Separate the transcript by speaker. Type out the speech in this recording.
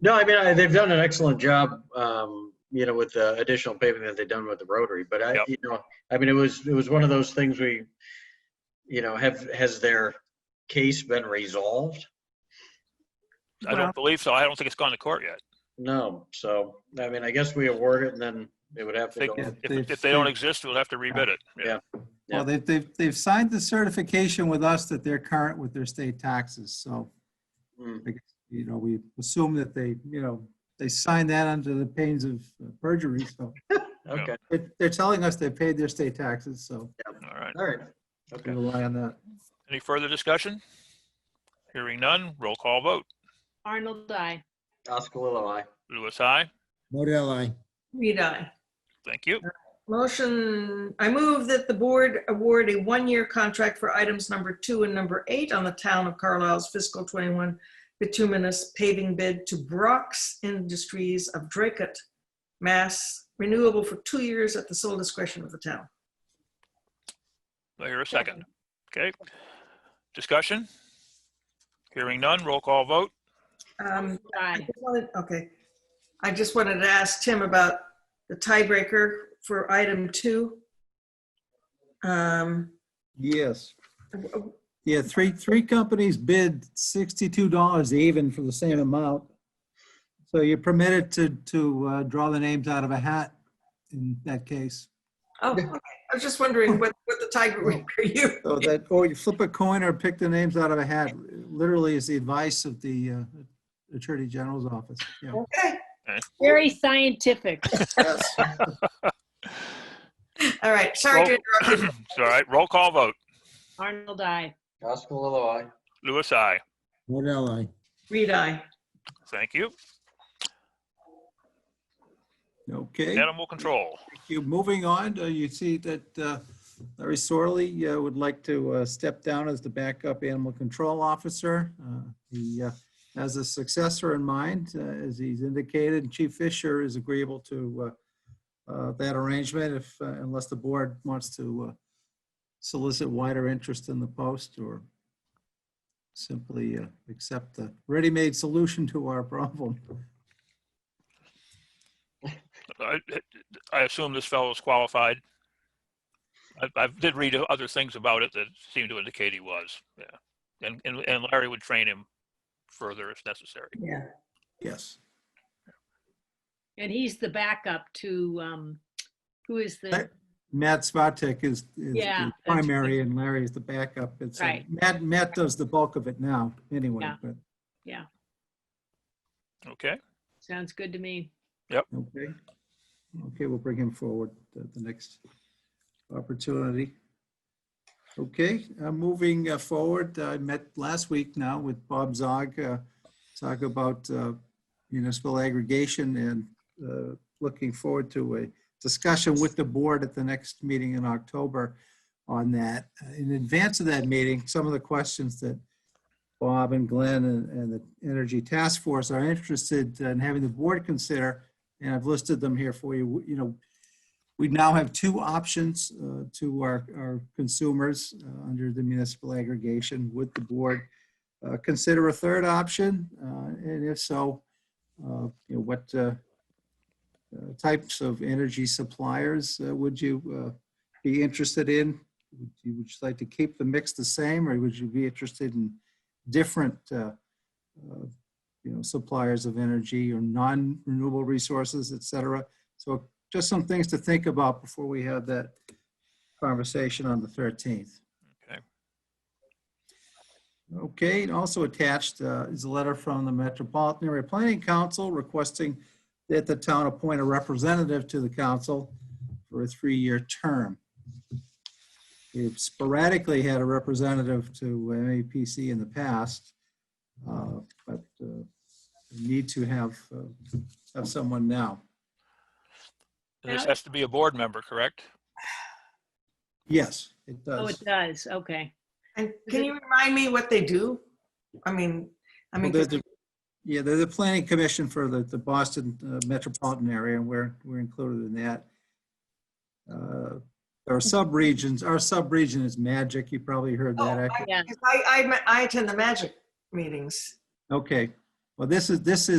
Speaker 1: No, I mean, I, they've done an excellent job, um, you know, with the additional paving that they've done with the rotary, but I,
Speaker 2: Yep.
Speaker 1: you know, I mean, it was, it was one of those things we, you know, have, has their case been resolved?
Speaker 2: I
Speaker 3: Well-
Speaker 2: don't believe so. I don't think it's gone to court yet.
Speaker 1: No, so, I mean, I guess we award it and then it would have to
Speaker 2: They-
Speaker 1: go.
Speaker 3: Yeah,
Speaker 2: If,
Speaker 3: they've-
Speaker 2: if they don't
Speaker 3: they've-
Speaker 2: exist, we'll have to rebid it.
Speaker 1: Yeah.
Speaker 2: Yeah.
Speaker 1: Yeah.
Speaker 3: Well, they've, they've, they've signed the certification with us that they're current with their state taxes, so,
Speaker 1: Mm,
Speaker 3: you know, we assume that they, you know, they signed that under the pains of perjury, so
Speaker 1: Okay,
Speaker 3: they're, they're telling us they paid their state taxes, so
Speaker 2: All right.
Speaker 1: all right,
Speaker 3: we
Speaker 1: okay.
Speaker 3: rely on that.
Speaker 2: Any further discussion? Hearing none, roll call vote.
Speaker 4: Arnold, I.
Speaker 1: Oscar Lilo, aye.
Speaker 2: Louis, aye.
Speaker 5: Modell, aye.
Speaker 6: Reed, aye.
Speaker 2: Thank you.
Speaker 6: Motion, I move that the board award a one-year contract for items number two and number eight on the town of Carlisle's fiscal 21 bituminous paving bid to Brock's Industries of Dracut, Mass, renewable for two years at the sole discretion of the town.
Speaker 2: Do I hear a second? Okay. Discussion? Hearing none, roll call vote.
Speaker 6: Um, I
Speaker 4: Aye.
Speaker 6: just wanted- Okay. I just wanted to ask Tim about the tiebreaker for item two. Um,
Speaker 3: Yes. Yeah, three, three companies bid sixty-two dollars even for the same amount. So you're permitted to, to uh, draw the names out of a hat in that case.
Speaker 6: Oh, okay. I was just wondering what, what the tiebreaker you.
Speaker 3: So that, or you flip a coin or pick the names out of a hat, literally is the advice of the uh, Attorney General's office. Yeah.
Speaker 6: Okay,
Speaker 4: Very scientific.
Speaker 6: all right, sorry to interrupt you.
Speaker 2: It's all right. Roll call vote.
Speaker 4: Arnold, I.
Speaker 1: Oscar Lilo, aye.
Speaker 2: Louis, aye.
Speaker 5: Modell, aye.
Speaker 6: Reed, aye.
Speaker 2: Thank you.
Speaker 3: Okay, thank
Speaker 2: Animal control.
Speaker 3: you. Moving on, uh, you see that uh, Larry Sorley uh, would like to uh, step down as the backup animal control officer. Uh, He uh, has a successor in mind, uh, as he's indicated. Chief Fisher is agreeable to uh, uh, that arrangement if, uh, unless the board wants to uh, solicit wider interest in the post or simply uh, accept the ready-made solution to our problem.
Speaker 2: I, I assume this fellow is qualified. I, I did read other things about it that seemed to indicate he was, yeah. And, and and Larry would train him further if necessary.
Speaker 6: Yeah.
Speaker 3: Yes.
Speaker 4: And he's the backup to, um, who is the,
Speaker 3: That- Matt Svatek is, is
Speaker 4: Yeah,
Speaker 3: the
Speaker 4: that's-
Speaker 3: primary and Larry is the backup. It's, uh,
Speaker 4: Right.
Speaker 3: Matt, Matt does the bulk of it now, anyway,
Speaker 4: Yeah.
Speaker 3: but,
Speaker 2: Okay,
Speaker 4: sounds good to me.
Speaker 3: okay. Okay, we'll bring him forward at the next opportunity. Okay, uh, moving uh, forward, I met last week now with Bob Zog, uh, talk about uh, municipal aggregation and uh, looking forward to a discussion with the board at the next meeting in October on that. In advance of that meeting, some of the questions that Bob and Glenn and and the Energy Task Force are interested in having the board consider, and I've listed them here for you, you know, we now have two options uh, to our, our consumers uh, under the municipal aggregation. Would the board uh, consider a third option? Uh, And if so, uh, you know, what uh, uh, types of energy suppliers uh, would you uh, be interested in? Would you would you like to keep the mix the same, or would you be interested in different, uh, uh, you know, suppliers of energy or non-renewable resources, et cetera? So just some things to think about before we have that conversation on the 13th.
Speaker 2: Okay.
Speaker 3: Okay, and also attached uh, is a letter from the Metropolitan Area Planning Council requesting that the town appoint a representative to the council for a three-year term. We've sporadically had a representative to MAPC in the past, uh, but uh, we need to have, uh, have someone now.
Speaker 2: this
Speaker 4: Yeah.
Speaker 2: has to be a board member, correct?
Speaker 3: Yes, it
Speaker 4: Oh, it
Speaker 3: does.
Speaker 4: does, okay.
Speaker 6: And can you remind me what they do? I mean, I
Speaker 3: Well,
Speaker 6: mean,
Speaker 3: they're the- Yeah, they're the planning commission for the, the Boston uh, metropolitan area, and we're, we're included in that. Uh, There are sub-regions, our sub-region is Magic, you probably heard
Speaker 6: Oh,
Speaker 3: that. I-
Speaker 4: Yeah.
Speaker 6: 'cause I, I, I attend the magic meetings.
Speaker 3: Okay, well, this is, this is